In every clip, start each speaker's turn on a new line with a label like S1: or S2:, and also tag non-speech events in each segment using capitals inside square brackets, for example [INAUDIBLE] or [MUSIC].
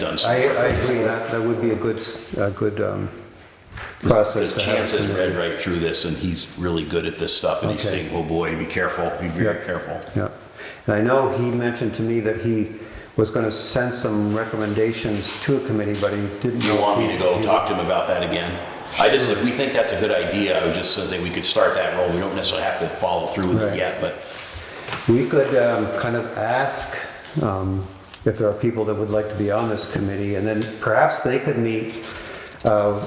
S1: done
S2: I, I
S1: some.
S2: agree, that, that would be a good, s- a good um, process
S1: His
S2: to have.
S1: chance has read right through this and he's really good at this stuff and he's
S2: Okay.
S1: saying, oh boy, be careful, be very
S2: Yeah.
S1: careful.
S2: Yeah, and I know he mentioned to me that he was gonna send some recommendations to a committee, but he didn't.
S1: Do you want me to go talk to him about that again? I just, if we think that's a good idea, I was just saying we could start that role. We don't necessarily have to follow through with
S2: Right.
S1: it yet, but
S2: We could um, kind of ask um, if there are people that would like to be on this committee, and then perhaps they could meet uh,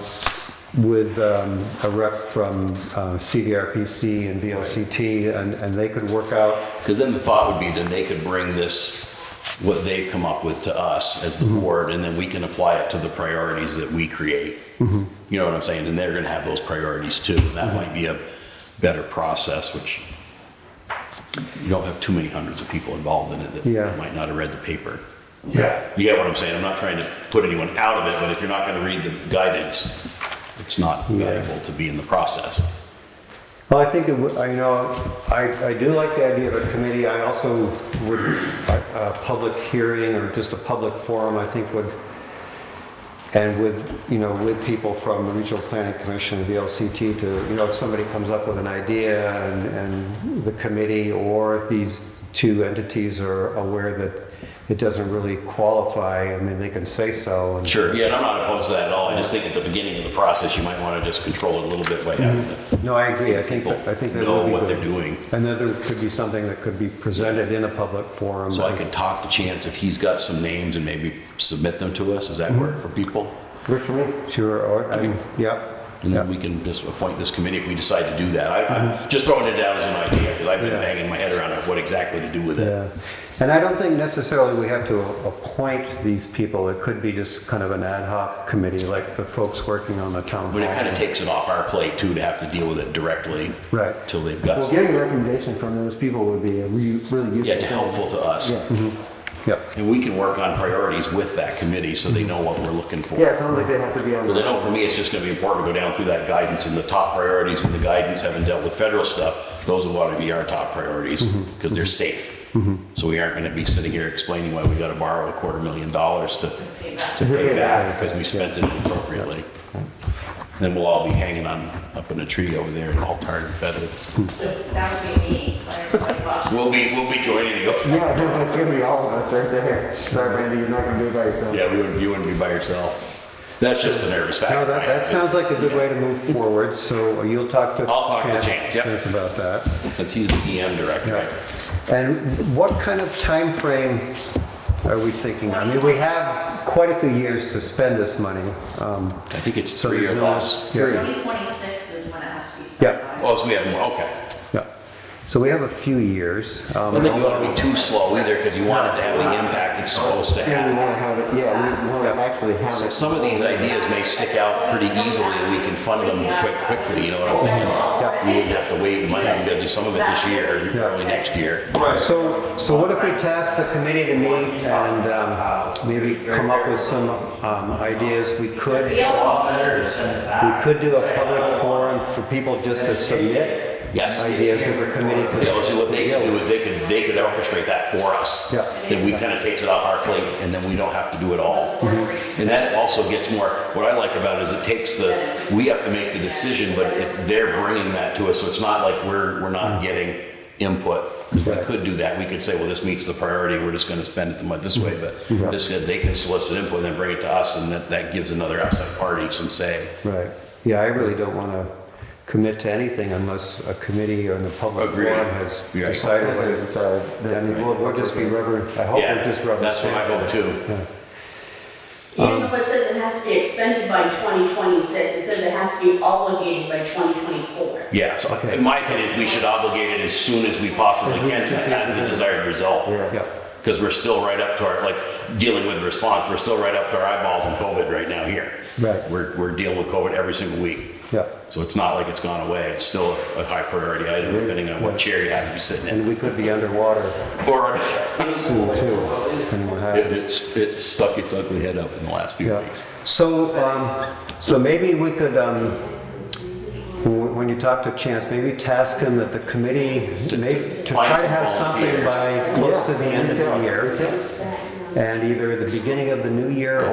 S2: with um, a rep from uh, CVRPC and VLCT, and, and they could work out
S1: Because then the thought would be then they could bring this, what they've come up with to us as the board, and then we can apply it to the priorities that we create. You know what I'm saying? And they're going to have those priorities too. And that might be a better process, which you don't have too many hundreds of people involved in it
S2: Yeah.
S1: that might not have read the paper.
S3: Yeah,
S1: You get what I'm saying? I'm not trying to put anyone out of it, but if you're not going to read the guidance, it's not valuable to be in the process.
S2: Well, I think, it would- I- you know, I, I do like the idea of a committee. I also would, a public hearing or just a public forum, I think would, and with, you know, with people from the Regional Planning Commission, the VLCT, to, you know, if somebody comes up with an idea and, and the committee or these two entities are aware that it doesn't really qualify, I mean, they can say so. and-
S1: Sure. Yeah, and I'm not opposed to that at all. I just think at the beginning of the process, you might want to just control it a little bit by having the
S2: No, I agree. I think,
S1: people
S2: that- I think that would
S1: know
S2: be
S1: what
S2: good.
S1: they're doing.
S2: And then there could be something that could be presented in a public forum.
S1: So I could talk to Chance if he's got some names and maybe submit them to us. Does that work for people?
S2: Works for me. Sure, or, I mean, yeah,
S1: And then
S2: yeah,
S1: we can just appoint this committee if we decide to do that. I, I'm just throwing it out as an idea because I've
S2: Yeah.
S1: been banging my head around what exactly to do with it.
S2: yeah. And I don't think necessarily we have to appoint these people. It could be just kind of an ad hoc committee, like the folks working on the town
S1: But it kind
S2: hall.
S1: of takes it off our plate too to have to deal with it directly
S2: Right.
S1: till they've got,
S4: Well,
S1: some-
S4: getting recommendation from those people would be a re- really useful.
S1: yeah, to helpful to us.
S4: Yeah,
S2: Yep,
S1: And we can work on priorities with that committee so they know what we're looking for.
S4: yeah, it sounds like they have to be on.
S1: Because I know for me, it's just going to be important to go down through that guidance and the top priorities and the guidance, having dealt with federal stuff, those would want to be our top priorities
S2: Mm-hmm.
S1: because they're safe. So we aren't going to be sitting here explaining why we got to borrow a quarter million dollars to, to pay back because we spent it inappropriately. Then we'll all be hanging on, up in a tree over there and all tarred and feathered.
S5: That would be me. like,
S1: We'll be, we'll be joining you.
S4: Yeah, [LAUGHS] I think that's gonna be all of us right there. Sorry, Brandy, you're not gonna do it by yourself.
S1: Yeah, we wouldn't, you wouldn't be by yourself. That's just a nervous
S2: no,
S1: factor.
S2: that, that sounds like a good way to move forward, so you'll talk to.
S1: I'll talk to Chance, yep.
S2: Chance About that.
S1: Since he's the EM director, right?
S2: And what kind of time frame are we thinking? I mean, we have quite a few years to spend this money. um,
S1: I think it's
S2: so
S1: three
S2: there's
S1: or
S2: no-
S1: less.
S2: Yeah.
S5: 2026 is when it has to be started.
S2: Yeah.
S1: Oh, so we have more, okay.
S2: Yeah. So we have a few years. um,
S1: I don't want to be too slow either because you want it to have the impact it's supposed to
S4: Yeah, we
S1: have.
S4: wanna have it, yeah, we wanna actually have it.
S1: Some of these ideas may stick out pretty easily and we can fund them quite quickly, you know what I'm thinking? We wouldn't have to wait, we might even go do some of it this year and early next year.
S2: So, so what if we task the committee to meet and um, maybe come up with some um, ideas? We could, we could do a public forum for people just to submit
S1: Yes.
S2: ideas that the committee
S1: Yeah, well,
S2: could.
S1: see, what they could do is they could, they could orchestrate that for us.
S2: Yeah.
S1: Then we kind of takes it off our plate and then we don't have to do it all.
S2: Mm-hmm.
S1: And that also gets more, what I like about it is it takes the, we have to make the decision, but it- they're bringing that to us. So it's not like we're, we're not getting input. 'Cause We
S2: Mm-hmm. Right.
S1: could do that. We could say, well, this meets the priority. We're just going to spend it the month this way.
S2: Mm-hmm.
S1: But this said, they can solicit input and then bring it to us and that, that gives another outside party some say.
S2: Right. Yeah, I really don't want to commit to anything unless a committee or the public
S1: Agreed.
S2: forum has
S1: Yeah.
S2: decided what it is.
S4: So, the-
S2: I mean, we'll, we'll just be rubber, I hope
S1: Yeah,
S2: we're just rubber.
S1: that's what I hope too.
S6: Even though it says it has to be expended by 2026, it says it has to be obligated by 2024.
S1: Yeah, so in my opinion, we should obligate it as soon as we possibly can to has the desired result.
S2: Yeah.
S1: Because we're still right up to our, like, dealing with response, we're still right up to our eyeballs in COVID right now here.
S2: Right.
S1: We're, we're dealing with COVID every single week.
S2: Yeah.
S1: So it's not like it's gone away, it's still a high priority item depending on what chair you have to be sitting in.
S2: And we could be underwater
S1: Or
S2: soon too. and we'll have-
S1: it, it's, it stuck its ugly head up in the last few
S2: Yeah.
S1: weeks.
S2: So, um, so maybe we could, um, wh- when you talk to Chance, maybe task him that the committee, may- to
S1: find
S2: try to
S1: some
S2: have something by close to the end of the
S4: Yeah,
S2: year.
S4: that's it.
S2: And either the beginning of the new year